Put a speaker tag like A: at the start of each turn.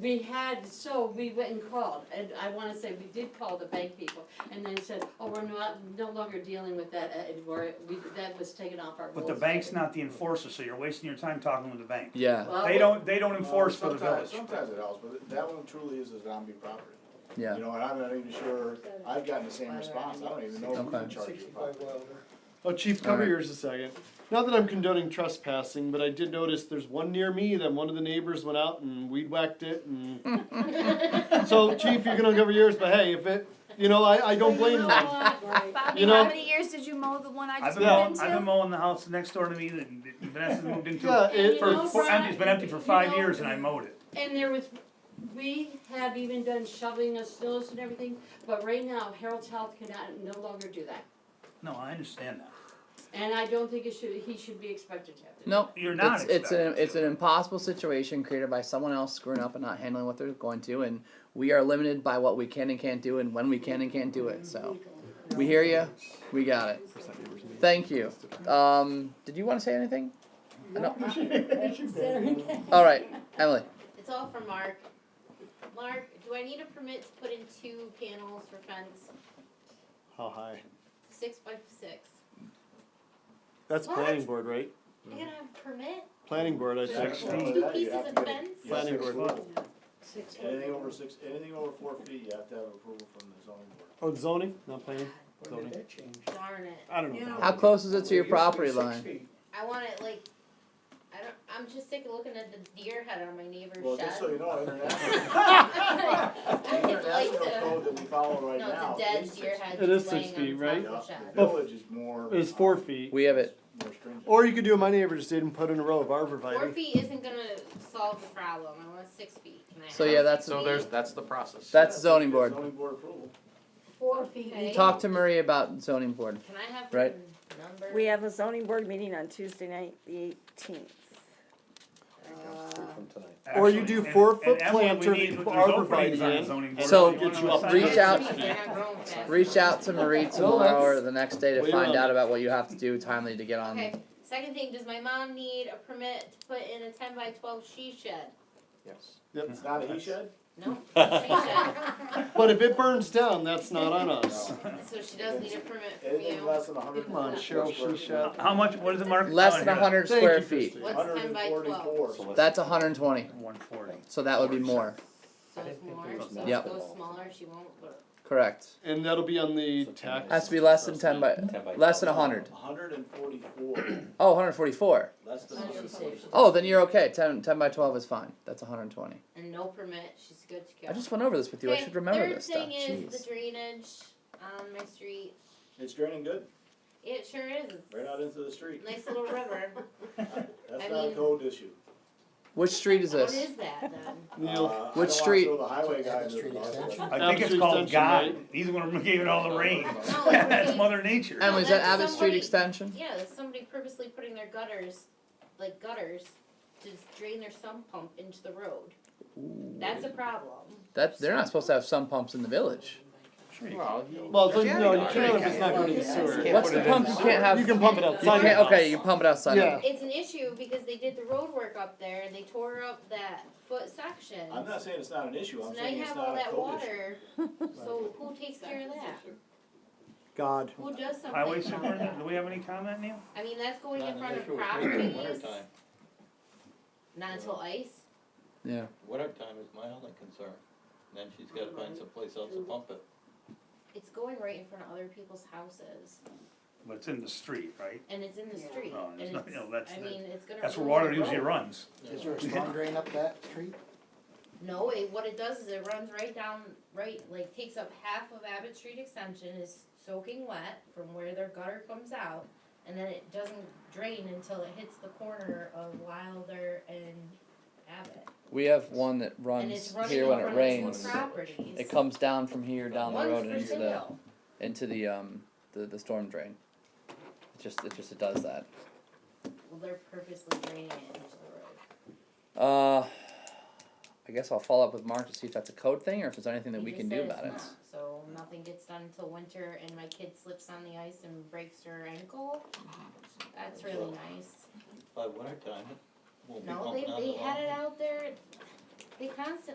A: we had, so we went and called, and I wanna say we did call the bank people, and they said, oh, we're not, no longer dealing with that, uh, and we're, we, that was taken off our
B: But
A: rules.
B: the bank's not the enforcer, so you're wasting your time talking with the bank.
C: Yeah,
A: Well,
B: They don't, they don't enforce for the
D: Sometimes-
B: village.
D: Sometimes it helps, but that one truly is a zombie property.
C: yeah.
D: You know, and I'm not even sure, I've gotten the same response, I don't even know who
C: Okay.
D: can charge you.
E: Oh, Chief, cover
C: Alright.
E: yours a second. Not that I'm condoning trespassing, but I did notice there's one near me that one of the neighbors went out and weed whacked it and. So Chief, you're gonna cover yours, but hey, if it, you know, I, I don't blame them.
F: Bobby,
E: You know-
F: how many years did you mow the one I
B: I've
F: just
B: been
F: moved
B: mowing,
F: into?
B: I've been mowing the house next door to me that Vanessa's moved
E: Yeah,
B: into.
E: it,
B: For,
A: know,
B: for empty, it's been empty for
A: Brian,
B: five
A: you know-
B: years and I mowed it.
A: And there was, we have even done shoveling of snows and everything, but right now Harold's Health cannot, no longer do that.
B: No, I understand that.
A: And I don't think it should, he should be expected to have to. do
C: No,
B: You're not
C: It's, it's an
B: expected
C: it's an impossible situation created by someone else screwing up and not handling what they're going to, and we are limited by what we can and can't do and when we can and can't do it. So, we hear you. We got it. Thank you. Um, did you want to say anything? No. All right, Emily.
G: It's all for Mark. Mark, do I need a permit to put in two panels for fence,
E: how high?
G: six by six?
E: That's
G: What?
E: planning board, right?
G: I
D: Mm-hmm.
G: gotta have a permit?
E: Planning board, I
D: Yeah,
E: think.
B: Six
D: you have
B: feet.
D: to
G: Two
D: get-
G: pieces of
D: yeah,
G: fence?
D: six
E: Planning
D: foot.
E: board.
A: Six
D: Anything over six, anything over four feet, you have to have approval from the zoning board.
E: Oh, zoning, not planning, zoning.
G: Darn it.
E: I don't know.
C: How close is it to your property line?
G: I want it like, I don't, I'm just sick of looking at the deer head on my
D: Well,
G: neighbor's
D: just so
G: shed.
D: you know, international, the
G: I'd like
D: international
G: to,
D: code that we follow right
G: no,
D: now.
G: it's a dead
D: is
G: deer
D: six
G: head
E: It is
G: just
E: six
G: laying
E: feet,
G: on
D: feet.
G: top of the
D: Yeah,
G: shed.
D: The village is more. uh,
E: It's four feet.
C: We have it.
D: More stringent.
E: Or you could do what my neighbor just did and put in a row of
G: Four
E: arborvitae.
G: feet isn't gonna solve the problem, I want six feet, can I
C: So
G: have
C: yeah, that's
G: six
H: So
G: feet?
H: there's, that's the process.
C: that's zoning board.
D: Zoning board approval.
F: Four feet.
G: Okay.
C: Talk to Marie about zoning board.
G: Can I have
C: Right.
G: the number?
I: We have a zoning board meeting on Tuesday night, the eighteenth.
E: Or you
B: Actually,
E: do
B: and- and
E: four-foot
B: Emily, we
E: planter
B: need-
E: to
B: there's
E: put
B: openings
E: arborvitae
B: on
E: in,
B: zoning board.
C: So-
B: If you wanna
E: Get you up.
B: sign
C: Reach out.
G: Uh, They're not growing fast.
C: Reach out to Marie tomorrow or the next day to
E: Wait
C: find
E: on.
C: out about what you have to do timely to get on.
G: Okay, second thing, does my mom need a permit to put in a ten by twelve she shed?
H: Yes.
E: Yep.
D: It's not a he shed?
G: No, she shed,
E: But if it burns down, that's not on us.
G: so she does need a permit from
D: Anything
G: you.
D: less than a hundred.
E: Come on, Cheryl, she shut.
B: How much, what is it, Mark?
C: Less
B: Oh,
C: than
B: here.
C: 100
E: Thank
C: square
E: you,
C: feet.
E: Christine.
G: What's ten by twelve?
C: That's 120.
B: 140.
C: So that would be more.
G: So it's more, so
C: Yep.
G: if it goes smaller, she won't, but
C: Correct.
E: And that'll be on the tax.
C: Has to be less than 10 by less than 100.
D: Hundred and forty-four,
C: Oh, 144.
D: less than a hundred and forty-four.
C: Oh, then you're okay. 10, 10 by 12 is fine. That's 120.
G: and no permit, she's good to go.
C: I just went over this with you. I
G: Okay,
C: should remember this stuff.
G: Third thing is
C: Jeez.
G: the drainage on my street,
D: It's draining good,
G: it sure is, It's
D: right out into the street.
G: a nice little river. I
D: That's not a
G: mean-
D: code issue.
C: Which street is
G: What
C: this?
G: is that then?
E: Neil,
D: Uh, I
C: Which
D: don't wanna
C: street?
D: throw the highway guy under the
H: Street
D: bus, but-
H: extension.
B: I think it's
E: Absolute
B: called
E: extension,
B: God.
E: right?
B: He's the one who gave it all the rain.
G: No,
B: That's
G: okay.
B: Mother Nature.
C: Emily, is that
G: That's
C: Abbott Street
G: somebody-
C: Extension?
G: Yeah, that's somebody purposely putting their gutters, like gutters, to drain their sump pump into the road. That's a problem.
C: That they're not supposed to have some pumps in the village.
H: Well, you-
E: Well, it's like, no, you
H: Yeah,
E: can't if
H: yeah.
E: it's not going to the sewer.
H: Can't
C: What's
H: put
C: the
H: it in
C: pump
H: the
C: you
H: sewer.
C: can't have?
E: You can pump it
C: You can't-
E: outside.
C: okay, you can pump it outside.
E: Yeah.
G: It's an issue because they did the road work up there and they tore up that foot section.
D: I'm not saying it's not an issue,
G: So
D: I'm
G: now you
D: saying it's
G: have all
D: not a
G: that
D: code issue.
G: water, so who takes care of that?
E: God.
G: Who does something
B: Highway
G: about
B: superintendent,
G: that?
B: do we have any comment, Neil?
G: I mean, that's going
H: Not
G: in
H: an
G: front of
H: issue with me in the
G: properties,
H: wintertime.
G: not until ice.
C: Yeah.
H: Wintertime is my only concern. Then she's gotta find someplace else to pump it.
G: It's going right in front of other people's houses
B: But it's in the street, right?
G: and it's in the street
B: Oh, there's
G: and
B: nothing-
G: it's,
B: no, that's
G: I
B: the-
G: mean, it's gonna.
B: That's where
G: ruin the
B: water usually
G: road.
B: runs.
H: Is
B: there a storm
H: drain up that street?
G: No, it, what it does is it runs right down, right, like takes up half of Abbott Street Extension is soaking wet from where their gutter comes out. And then it doesn't drain until it hits the corner of Wilder and Abbott.
C: We have one that
G: And it's
C: runs
G: running
C: here
G: in
C: when
G: front
C: it
G: of
C: rains.
G: two properties.
C: It comes down from here down the
G: One's
C: road
G: for
C: and into the
G: sale.
C: into the um the, the storm drain. It just it just it does that.
G: Well, they're purposely draining it into the road.
C: Uh I guess I'll follow up with Mark to see if that's a code thing or if there's anything that
G: He
C: we
G: just
C: can
G: said
C: do
G: it's
C: about it.
G: not, So nothing gets done until winter and my kid slips on the ice and breaks her ankle. That's really nice.
H: By wintertime, it won't be
G: No,
H: pumping
G: they,
H: out
G: they
H: at all.
G: had it out there, they constantly